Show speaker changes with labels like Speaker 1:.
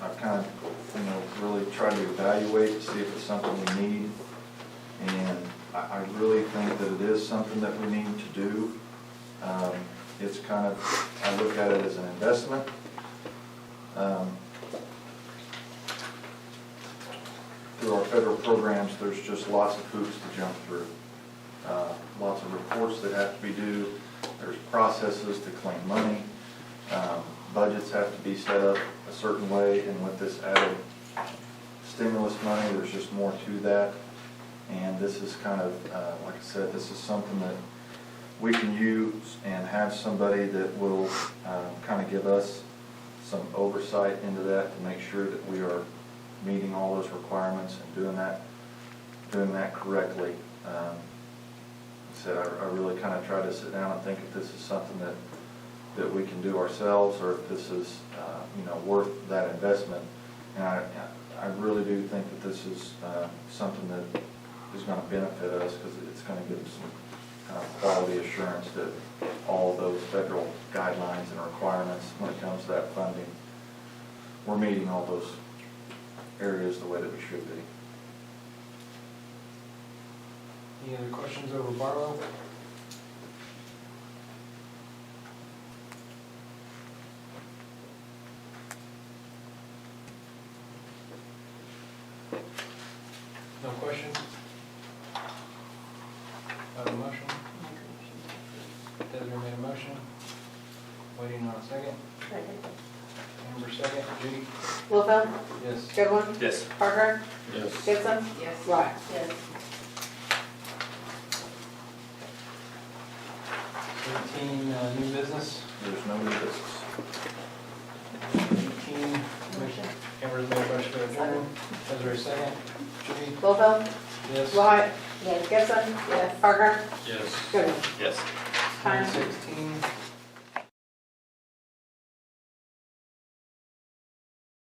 Speaker 1: try to evaluate, to see if it's something we need. And I, I really think that it is something that we need to do. Um, It's kind of, I look at it as an investment. Um, Through our federal programs, there's just lots of hoops to jump through. Uh, Lots of reports that have to be due, there's processes to claim money. Um, Budgets have to be set up a certain way, and with this added stimulus money, there's just more to that. And this is kind of, uh, like I said, this is something that we can use and have somebody that will kind of give us some oversight into that to make sure that we are meeting all those requirements and doing that, doing that correctly. Um, like I said, I I really kind of try to sit down and think if this is something that, that we can do ourselves, or if this is, uh, you know, worth that investment. And I, I really do think that this is uh, something that is going to benefit us, because it's going to give us some kind of quality assurance that all those federal guidelines and requirements when it comes to that funding, we're meeting all those areas the way that we should be.
Speaker 2: Any other questions over Barlow? No questions? Have a motion? Desiree made a motion. Waiting on a second. Amber second. Judy?
Speaker 3: Littlefield?
Speaker 2: Yes.
Speaker 3: Goodwin?
Speaker 4: Yes.
Speaker 3: Parker?
Speaker 4: Yes.
Speaker 3: Gibson?
Speaker 5: Yes.
Speaker 3: Right.
Speaker 5: Yes.
Speaker 2: Eighteen, uh, new business.
Speaker 1: There's no risks.
Speaker 2: Eighteen, Commissioner Amber's made a motion to adjourn. Desiree second. Judy?
Speaker 3: Littlefield?
Speaker 2: Yes.
Speaker 3: Right. Yes. Gibson? Yes. Parker?
Speaker 4: Yes.
Speaker 3: Goodwin?
Speaker 4: Yes.
Speaker 3: Time.
Speaker 2: Sixteen.